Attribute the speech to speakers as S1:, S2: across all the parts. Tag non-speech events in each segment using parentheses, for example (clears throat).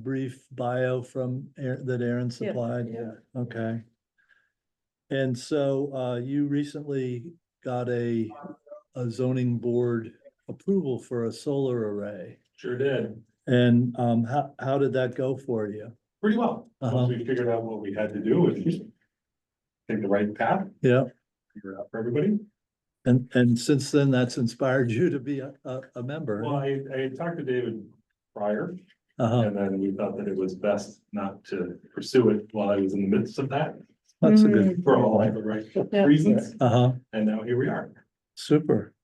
S1: brief bio from, Aa- that Aaron supplied?
S2: Yeah.
S1: Okay. And so uh, you recently got a, a zoning board approval for a solar array.
S3: Sure did,
S1: And um, how, how did that go for you?
S3: pretty well,
S1: Uh-huh.
S3: once we figured out what we had to do and take the right path,
S1: Yeah,
S3: figure it out for everybody.
S1: and, and since then, that's inspired you to be a, a, a member.
S3: Well, I, I had talked to David prior,
S1: Uh-huh.
S3: and then we thought that it was best not to pursue it while I was in the midst of that,
S1: That's a good,
S3: for all the right
S2: Mm-hmm. Yeah.
S3: reasons,
S1: uh-huh,
S3: and now here we are.
S1: super.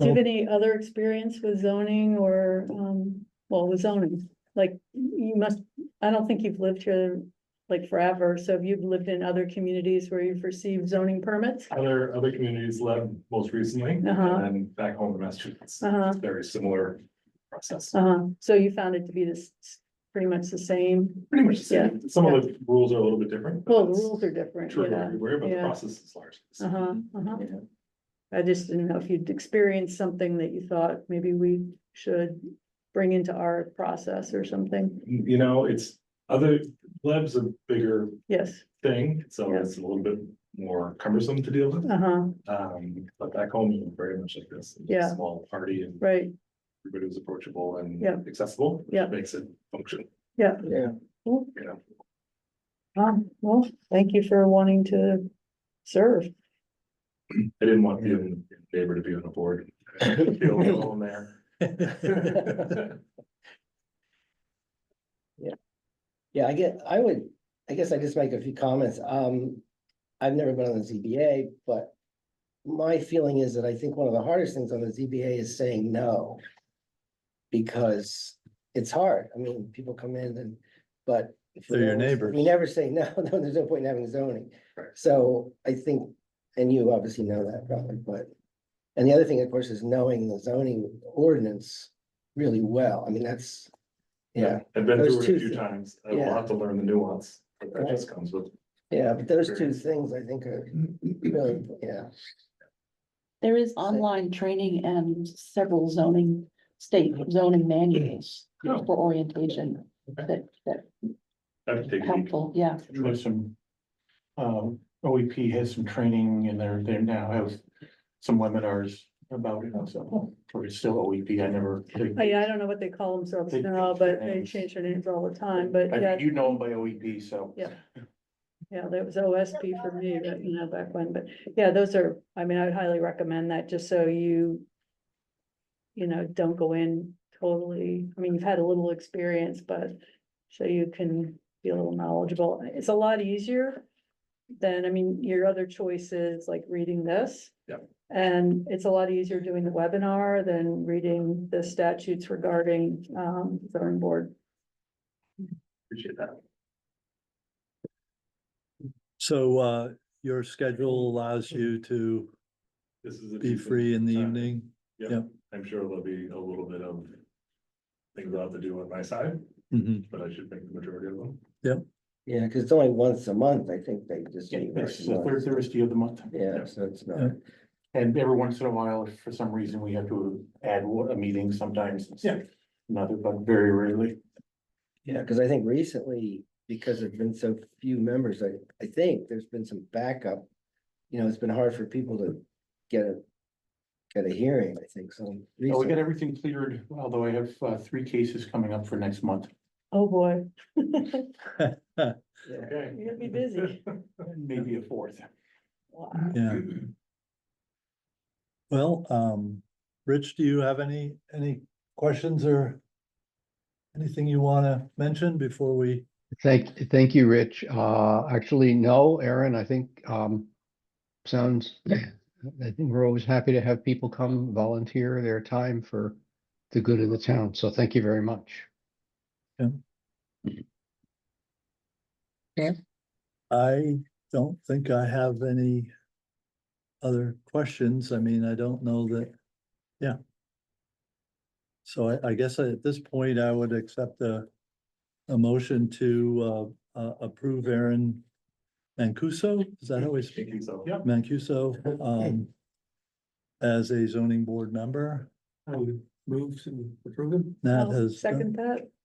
S2: Do you have any other experience with zoning or, um, well, with zoning? Like, you must, I don't think you've lived here like forever, so have you lived in other communities where you've received zoning permits?
S3: Other, other communities led most recently, and
S2: Uh-huh.
S3: then back home in Massachusetts,
S2: Uh-huh,
S3: very similar process.
S2: uh-huh, so you found it to be this, pretty much the same?
S3: Pretty much the same, some of the rules are a little bit different. but
S2: Well, the
S3: it's
S2: rules are different,
S3: True
S2: yeah.
S3: everywhere, but the
S2: yeah.
S3: process is large.
S2: Uh-huh, uh-huh.
S3: Yeah.
S2: I just didn't know if you'd experienced something that you thought maybe we should bring into our process or something.
S3: you know, it's other, Leb's a bigger
S2: Yes,
S3: thing, so
S2: Yeah.
S3: it's a little bit more cumbersome to deal with.
S2: uh-huh,
S3: Um, but back home, it was very much like this. It was a
S2: Yeah.
S3: Small party and
S2: right,
S3: everybody was approachable and
S2: Yeah.
S3: accessible. which
S2: Yeah.
S3: Makes it function,
S2: yeah.
S4: Yeah.
S2: Cool.
S3: you know.
S2: Um, well, thank you for wanting to serve.
S3: I didn't want to be a neighbor to be on a board. (laughs) Feel alone there.
S4: Yeah, I get, I would, I guess I just make a few comments. Um, I've never been on the ZBA, but. My feeling is that I think one of the hardest things on the ZBA is saying no. Because it's hard. I mean, people come in and, but. if you
S1: They're your
S4: always-
S1: neighbors.
S4: We never say no, (laughs) no, there's no point in having zoning.
S3: Right.
S4: So I think, and you obviously know that probably, but. And the other thing, of course, is knowing the zoning ordinance really well. I mean, that's. Yeah,
S3: (laughs) I've been
S4: Those
S3: through it
S4: two
S3: a few
S4: thi-
S3: times. I will
S4: Yeah.
S3: have to learn the nuance. but That
S4: Right.
S3: just comes with.
S4: yeah, but those two
S3: Experience.
S4: things I think
S5: (clears throat)
S4: are really, yeah.
S6: There is online training and several zoning, state zoning manuals
S3: No,
S6: for orientation that, that
S3: I've
S6: are
S3: taken.
S6: helpful, yeah.
S5: There's some, um, OEP has some training and they're, they now have some webinars about it also. Or it's still OEP, I never.
S2: I, I don't know what they call themselves
S5: They
S2: now,
S5: change their
S2: but they
S5: names.
S2: change their names all the time, but
S5: I-
S2: yeah,
S5: You know them by OEP, so.
S2: Yeah. yeah, that was OSP for me, but you know, back when, but yeah, those are, I mean, I would highly recommend that just so you. You know, don't go in totally, I mean, you've had a little experience, but so you can be a little knowledgeable. It's a lot easier than, I mean, your other choices, like reading this.
S3: Yep.
S2: And it's a lot easier doing the webinar than reading the statutes regarding um zoning board.
S3: Appreciate that.
S1: So uh, your schedule allows you to
S3: This is. a
S1: be
S3: decent
S1: free in the
S3: time.
S1: evening?
S3: Yeah,
S1: Yep.
S3: I'm sure there'll be a little bit of things I'll have to do on my side,
S1: Mhm.
S3: but I should think the majority of them.
S4: Yeah, because it's only once a month, I think they just.
S5: Yeah,
S4: meet once
S5: It's
S4: a
S5: the third
S4: month.
S5: Thursday of the month.
S4: Yeah, so it's
S1: Yeah.
S4: not,
S5: And every once in a while, if for some reason we have to add wa- a meeting sometimes. it's
S3: Yeah.
S5: Another, but very rarely.
S4: yeah, because I think recently, because there've been so few members, I, I think there's been some backup. You know, it's been hard for people to get a, get a hearing, I think, so.
S5: Oh, we
S4: recently-
S5: got everything cleared, although I have, uh, three cases coming up for next month.
S2: Oh, boy.
S4: yeah.
S3: Okay.
S2: You're gonna be busy.
S5: Maybe a fourth.
S2: Wow.
S1: Yeah. Well, um, Rich, do you have any, any questions or anything you want to mention before we?
S7: Thank, thank you, Rich. Uh, actually, no, Aaron, I think, um, sounds, I think we're always happy to have people come volunteer their time for the good of the town. So thank you very much.
S1: I don't think I have any other questions. I mean, I don't know that, yeah. So I, I guess at this point, I would accept a, a motion to, uh, uh, approve Aaron Mancuso, is that how we speak?
S3: Thank you so.
S5: Yep.
S1: Mancuso, um, as a zoning board member.
S5: I would
S8: move to approve them?
S5: Nat
S2: I'll
S5: has.
S1: uh,
S5: done-
S2: second that.